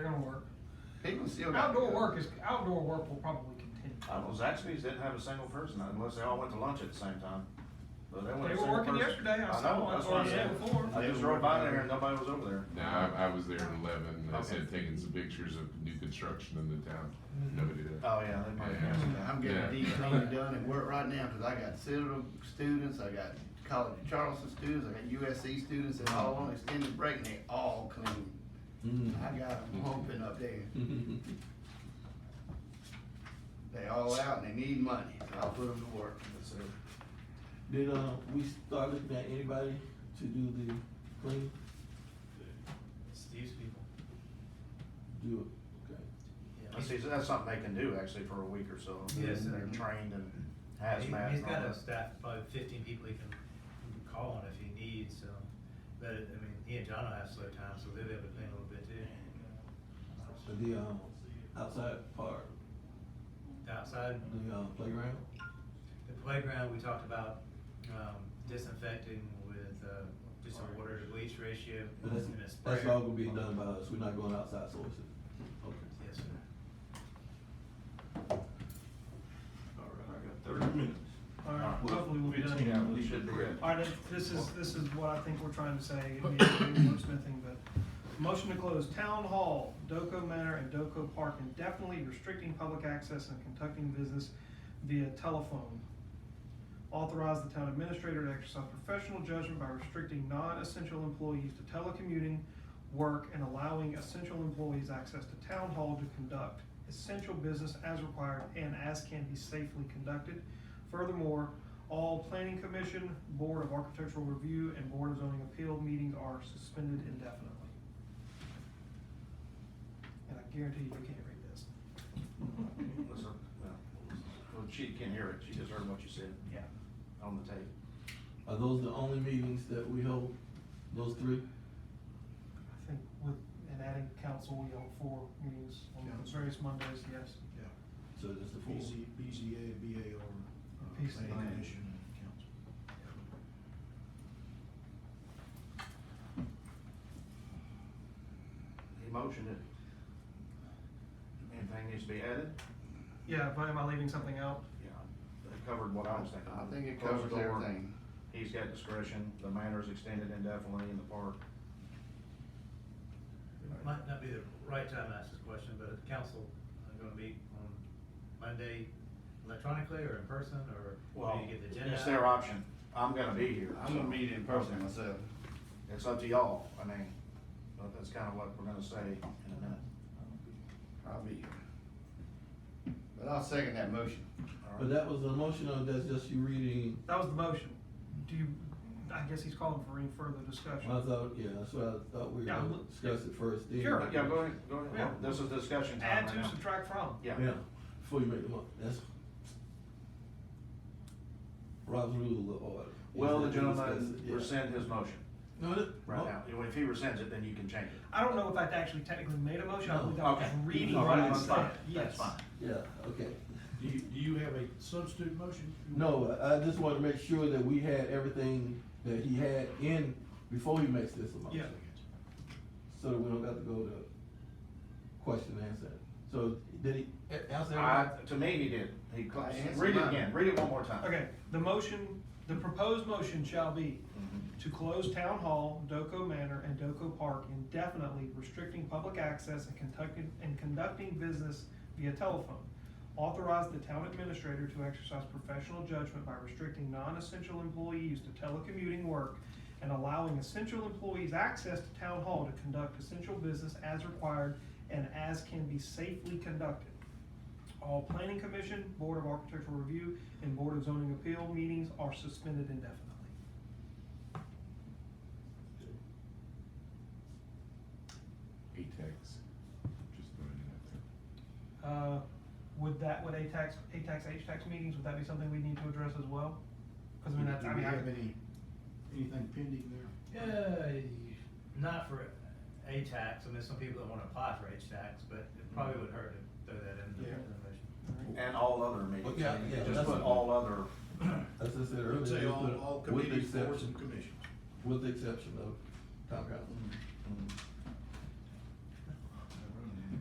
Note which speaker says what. Speaker 1: They're gonna work.
Speaker 2: People still got.
Speaker 1: Outdoor work is, outdoor work will probably continue.
Speaker 2: I don't know, Uh, Zaxby's didn't have a single person unless they all went to lunch at the same time. But they
Speaker 1: They
Speaker 2: weren't a
Speaker 1: were
Speaker 2: single
Speaker 1: working
Speaker 2: person.
Speaker 1: yesterday, I saw,
Speaker 2: know,
Speaker 1: that's
Speaker 2: that's
Speaker 1: what I
Speaker 2: what
Speaker 1: said
Speaker 2: I'm
Speaker 1: before.
Speaker 2: I just rode by there and nobody was over there.
Speaker 3: No, I, I was there at eleven, I
Speaker 2: Okay.
Speaker 3: said taking some pictures of new construction in the town, nobody did.
Speaker 2: Oh, yeah, they might have.
Speaker 3: Yeah.
Speaker 2: that.
Speaker 4: I'm getting
Speaker 3: Yeah.
Speaker 4: a deep clean done at work right now, cause I got Citadel students, I got College of Charleston students, I got USC students, and all on extended break, and they all clean. I got them humping up there. They all out and they need money, so I'll put them to work.
Speaker 2: That's it.
Speaker 5: Did, uh, we start looking at anybody to do the cleaning?
Speaker 6: Steve's people.
Speaker 5: Do it, okay.
Speaker 2: I see, so that's something they can do actually for a week or so.
Speaker 6: Yes,
Speaker 2: They're
Speaker 6: sir.
Speaker 2: trained and
Speaker 6: He-
Speaker 2: hazmat
Speaker 6: He's
Speaker 2: and all
Speaker 6: got a
Speaker 2: that.
Speaker 6: staff, probably fifteen people he can, he can call on if he needs, so, but, I mean, he and John will have slow time, so they'll be able to clean a little bit
Speaker 5: So
Speaker 6: too.
Speaker 5: the, um, outside part,
Speaker 6: The Outside,
Speaker 5: the, um, playground,
Speaker 6: the playground, we talked about, um, disinfecting with, uh, just a water to bleach ratio
Speaker 5: but that's,
Speaker 6: and a sprayer.
Speaker 5: that's all gonna be done by us, we're not going outside sources. Okay,
Speaker 6: Yes, sir.
Speaker 5: all right.
Speaker 7: I got thirty minutes.
Speaker 1: Alright, hopefully we'll be done.
Speaker 7: Fifteen hours, we should be ready.
Speaker 1: Alright, this is, this is what I think we're trying to say, it'd be a wordsmithing, but. Motion to close Town Hall, Doco Manor, and Doco Park indefinitely restricting public access and conducting business via telephone. Authorize the town administrator to exercise professional judgment by restricting non-essential employees to telecommuting, work, and allowing essential employees access to Town Hall to conduct essential business as required and as can be safely conducted. Furthermore, all planning commission, board of architectural review, and board of zoning appeal meetings are suspended indefinitely. And I guarantee you, you can't read this.
Speaker 2: Listen, well, well, she can't hear it. She just heard what you said
Speaker 1: Yeah.
Speaker 2: on the tape.
Speaker 5: Are those the only meetings that we hold, those three?
Speaker 1: I think with, and adding council, we have four meetings on those various Mondays, yes.
Speaker 5: So that's the four?
Speaker 7: BZ, BZA, BAR, uh,
Speaker 1: Peace and
Speaker 7: planning
Speaker 1: land.
Speaker 7: commission and council.
Speaker 2: He motioned it. Anything needs to be added?
Speaker 1: Yeah, but am I leaving something out?
Speaker 2: Yeah. It covered what I was thinking.
Speaker 4: I think it
Speaker 2: Close the
Speaker 4: covers
Speaker 2: door.
Speaker 4: everything.
Speaker 2: He's got discretion. The manor's extended indefinitely in the park.
Speaker 6: Might not be the right time to ask this question, but the council, I'm gonna meet on Monday electronically or in person, or
Speaker 2: Well,
Speaker 6: do you get the agenda?
Speaker 2: it's their option. I'm gonna be here.
Speaker 4: I'm gonna meet in person myself.
Speaker 2: It's up to y'all. I mean, but that's kinda what we're gonna say in a minute.
Speaker 4: I'll be here. But I'll second that motion.
Speaker 2: All
Speaker 5: But
Speaker 2: right.
Speaker 5: that was the motion, or that's just you reading,
Speaker 1: That was the motion. Do you, I guess he's calling for any further discussion.
Speaker 5: I thought, yeah, that's what I thought we were
Speaker 1: Yeah,
Speaker 5: gonna
Speaker 1: look-
Speaker 5: discuss it first, then.
Speaker 1: Sure.
Speaker 2: Yeah, go ahead, go ahead.
Speaker 1: Yeah.
Speaker 2: This is discussion time
Speaker 1: Add
Speaker 2: right
Speaker 1: to,
Speaker 2: now.
Speaker 1: subtract from.
Speaker 5: Yeah,
Speaker 2: Yeah.
Speaker 5: before you make the mo, that's Rob's rule of order.
Speaker 2: Will the
Speaker 5: Is that we discuss
Speaker 2: gentleman
Speaker 5: it, yeah.
Speaker 2: rescind his motion
Speaker 5: No, oh. that,
Speaker 2: right now? If he rescinds it, then you can change it.
Speaker 1: I don't know if I actually technically made a motion, I
Speaker 5: No.
Speaker 1: believe I was reading
Speaker 2: All
Speaker 1: what
Speaker 2: right,
Speaker 1: I
Speaker 2: that's fine.
Speaker 1: said, yes.
Speaker 2: That's fine.
Speaker 5: yeah, okay.
Speaker 7: Do you, do you have a substitute motion?
Speaker 5: No, I I just wanted to make sure that we had everything that he had in before he makes this motion.
Speaker 1: Yeah.
Speaker 5: So that we don't got to go to question and answer. So did he eh, a- answer
Speaker 2: I,
Speaker 5: everything?
Speaker 2: to me, he did. He, cl-
Speaker 4: I answered
Speaker 2: read it
Speaker 4: mine.
Speaker 2: again, read it one more time.
Speaker 1: Okay, the motion, the proposed motion shall be
Speaker 2: Mhm.
Speaker 1: to close Town Hall, Doco Manor, and Doco Park indefinitely, restricting public access and conducting, and conducting business via telephone. Authorize the town administrator to exercise professional judgment by restricting non-essential employees to telecommuting work and allowing essential employees access to Town Hall to conduct essential business as required and as can be safely conducted. All planning commission, board of architectural review, and board of zoning appeal meetings are suspended indefinitely.
Speaker 3: ATEX, just throwing it out there.
Speaker 1: Uh, would that, would ATAX, ATAX, HTAX meetings, would that be something we need to address as well? Cause I mean, that's, I mean,
Speaker 7: Do we have
Speaker 1: I,
Speaker 7: any, anything pending there?
Speaker 6: Yeah, Uh, not for a tax. I mean, some people that wanna apply for H tax, but it probably would hurt to throw that in the
Speaker 7: Yeah.
Speaker 6: in the motion.
Speaker 2: And all other meetings.
Speaker 5: Yeah, yeah,
Speaker 2: Just
Speaker 5: that's-
Speaker 2: put all other,
Speaker 5: As I said earlier.
Speaker 7: Let's say
Speaker 5: just
Speaker 7: all,
Speaker 5: put
Speaker 7: all
Speaker 5: with the
Speaker 7: committees, boards
Speaker 5: exception-
Speaker 7: and commissions.
Speaker 5: With the exception of town council.
Speaker 2: mm,